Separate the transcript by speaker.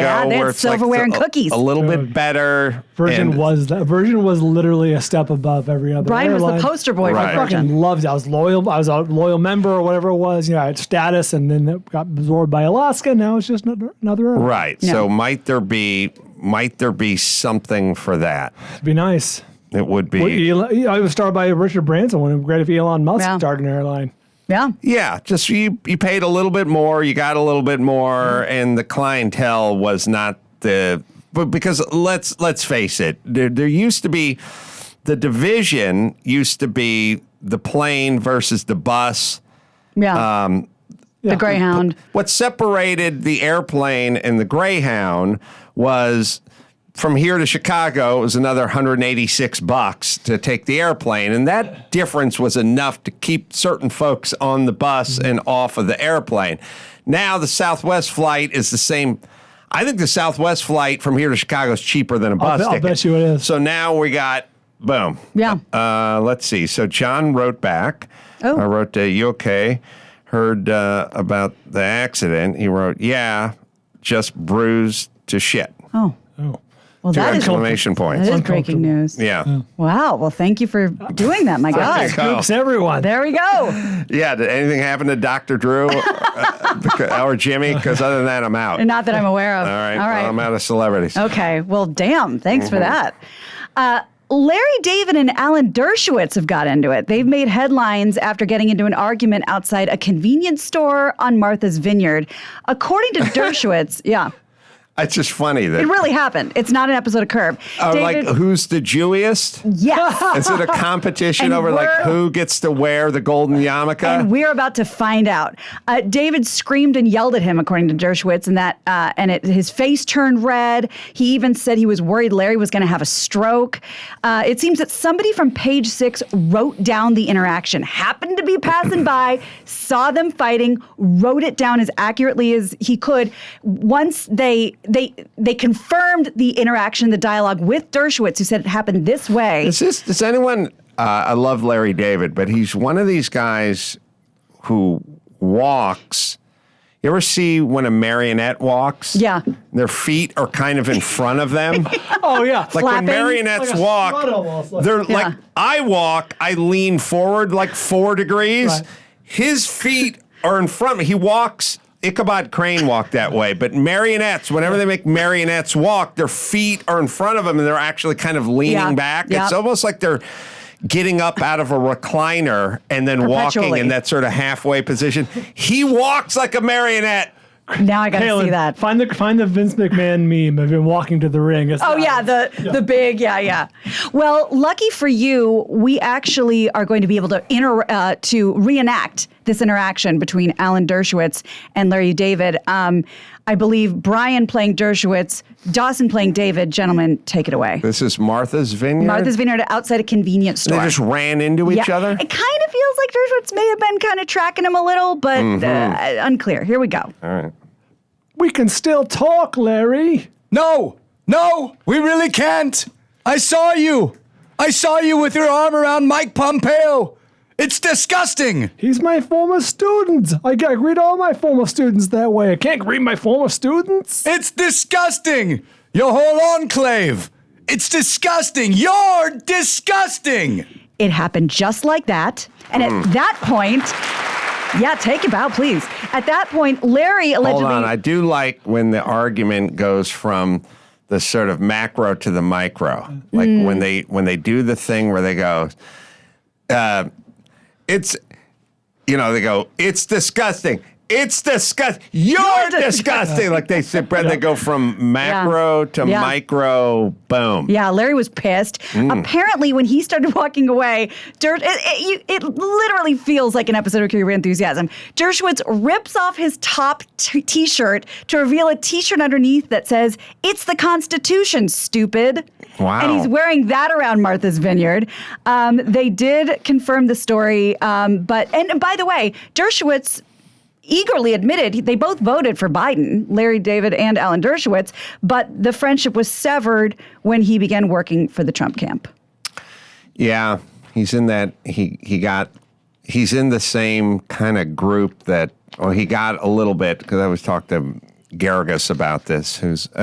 Speaker 1: Yeah,
Speaker 2: go
Speaker 1: they had
Speaker 2: where it's like
Speaker 1: silverware
Speaker 2: the-
Speaker 1: and
Speaker 2: a-
Speaker 1: cookies.
Speaker 2: a, little bit better.
Speaker 3: Virgin
Speaker 2: and-
Speaker 3: was that Virgin was literally a step above every other.
Speaker 1: Brian was the
Speaker 3: airline.
Speaker 1: poster boy
Speaker 2: Right.
Speaker 1: for
Speaker 3: I fucking
Speaker 1: Virgin.
Speaker 3: loved it. I was loyal. I was a loyal member or whatever it was. You know, I had status, and then it got absorbed by Alaska. Now it's just another. another airline.
Speaker 2: right.
Speaker 1: No.
Speaker 2: So might there be might there be something for that?
Speaker 3: It'd be nice.
Speaker 2: It would be
Speaker 3: Well, Elon, I was started by Richard Branson. Wouldn't it be great if Elon Musk
Speaker 1: Yeah.
Speaker 3: started an airline?
Speaker 1: Yeah.
Speaker 2: Yeah, just you you paid a little bit more, you got a little bit more, and the clientele was not the but because let's let's face it, there there used to be the division used to be the plane versus the bus.
Speaker 1: Yeah.
Speaker 2: Um,
Speaker 1: the Greyhound.
Speaker 2: What separated the airplane and the Greyhound was from here to Chicago it was another 186 bucks to take the airplane and that difference was enough to keep certain folks on the bus and off of the airplane. Now the Southwest flight is the same I think the Southwest flight from here to Chicago is cheaper than a bus
Speaker 3: bet- I'll
Speaker 2: ticket.
Speaker 3: bet you it is.
Speaker 2: So now we got boom.
Speaker 1: Yeah.
Speaker 2: Uh, let's see. So John wrote back.
Speaker 1: Oh.
Speaker 2: I wrote, uh, "You okay? Heard uh, about the accident." He wrote, "Yeah, just bruised to shit."
Speaker 1: Oh.
Speaker 3: Oh,
Speaker 1: Well,
Speaker 2: Two
Speaker 1: that is, that
Speaker 2: exclamation points.
Speaker 1: is breaking news.
Speaker 2: yeah.
Speaker 1: Wow. Well, thank you for doing that. My
Speaker 2: There you
Speaker 1: God.
Speaker 2: go.
Speaker 3: Oops, everyone.
Speaker 1: There we go.
Speaker 2: Yeah. Did anything happen to Doctor Drew uh, beca- or Jimmy? Because other than that, I'm out.
Speaker 1: Not that I'm aware of.
Speaker 2: All right.
Speaker 1: All right. Oh.
Speaker 2: Well, I'm out Mm-hmm. of celebrities.
Speaker 1: Okay. Well, damn. Thanks for that. Uh, Larry David and Alan Dershowitz have got into it. They've made headlines after getting into an argument outside a convenience store on Martha's Vineyard. According to Dershowitz, yeah,
Speaker 2: It's just funny that.
Speaker 1: it really happened. It's not an episode of Curb.
Speaker 2: uh, like who's the Jewiest?
Speaker 1: yes.
Speaker 2: Is it a competition
Speaker 1: And
Speaker 2: over like
Speaker 1: we're-
Speaker 2: who gets to wear the golden yarmulke?
Speaker 1: And we're about to find out. Uh, David screamed and yelled at him, according to Dershowitz, and that uh, and it, his face turned red. He even said he was worried Larry was going to have a stroke. Uh, it seems that somebody from Page Six wrote down the interaction, happened to be passing by, saw them fighting, wrote it down as accurately as he could. Once they they they confirmed the interaction, the dialogue with Dershowitz, who said it happened this way.
Speaker 2: Is this? Does anyone? Uh, I love Larry David, but he's one of these guys who walks. You ever see when a marionette walks?
Speaker 1: Yeah.
Speaker 2: Their feet are kind of in front of them.
Speaker 3: Oh yeah.
Speaker 2: Like when
Speaker 1: Flapping.
Speaker 2: marionettes
Speaker 3: Like a
Speaker 2: walk,
Speaker 3: strut almost, like-
Speaker 2: they're
Speaker 1: Yeah.
Speaker 2: like I walk, I lean forward like four degrees.
Speaker 3: Right.
Speaker 2: His feet are in front. of me. He walks. Ichabod Crane walked that way, but marionettes, whenever they make marionettes walk, their feet are in front of them and they're actually kind of leaning
Speaker 1: Yeah.
Speaker 2: back. It's
Speaker 1: Yep.
Speaker 2: almost like they're getting up out of a recliner and then walking
Speaker 1: Perpetually.
Speaker 2: in that sort of halfway position. He walks like a marionette.
Speaker 1: now I got to
Speaker 3: Palin,
Speaker 1: see that.
Speaker 3: Find the find the Vince McMahon meme of him walking to the ring. It's
Speaker 1: Oh
Speaker 3: not-
Speaker 1: yeah, the the big yeah yeah. Well, lucky for you, we actually are going to be able to inter uh, to reenact this interaction between Alan Dershowitz and Larry David. Um, I believe Brian playing Dershowitz, Dawson playing David. Gentlemen, take it away.
Speaker 2: This is Martha's Vineyard.
Speaker 1: Martha's Vineyard outside a convenience
Speaker 2: They
Speaker 1: store.
Speaker 2: just ran into each other.
Speaker 1: It kind of feels like Dershowitz may have been kind of tracking him a little, but
Speaker 2: Mm-hmm.
Speaker 1: uh, unclear. Here we go.
Speaker 3: We can still talk, Larry.
Speaker 4: No, no, we really can't. I saw you. I saw you with your arm around Mike Pompeo. It's disgusting.
Speaker 3: He's my former student. I gotta greet all my former students that way. I can't greet my former students.
Speaker 4: It's disgusting. Your whole enclave. It's disgusting. You're disgusting.
Speaker 1: It happened just like that. And
Speaker 2: Hmm.
Speaker 1: at that point, yeah, take it out, please. At that point, Larry allegedly.
Speaker 2: Hold on. I do like when the argument goes from the sort of macro to the micro. Like when
Speaker 1: Mm.
Speaker 2: they when they do the thing where they go, uh, it's you know, they go, it's disgusting. It's disgust. You're,
Speaker 1: dis-
Speaker 2: disgusting. like they sit Brad, they go from macro to
Speaker 1: Yeah.
Speaker 2: micro. Boom.
Speaker 1: yeah, Larry was pissed.
Speaker 2: Hmm.
Speaker 1: Apparently, when he started walking away, Dersh, it, it, you- it literally feels like an episode of Curb Your Enthusiasm. Dershowitz rips off his top t shirt to reveal a t shirt underneath that says, It's the Constitution, stupid.
Speaker 2: Wow.
Speaker 1: And he's wearing that around Martha's Vineyard. Um, they did confirm the story, um, but, and by the way, Dershowitz eagerly admitted they both voted for Biden, Larry David and Alan Dershowitz, but the friendship was severed when he began working for the Trump camp.
Speaker 2: Yeah, he's in that. He he got. He's in the same kind of group that. Well, he got a little bit because I was talking to Garrigus about this, who's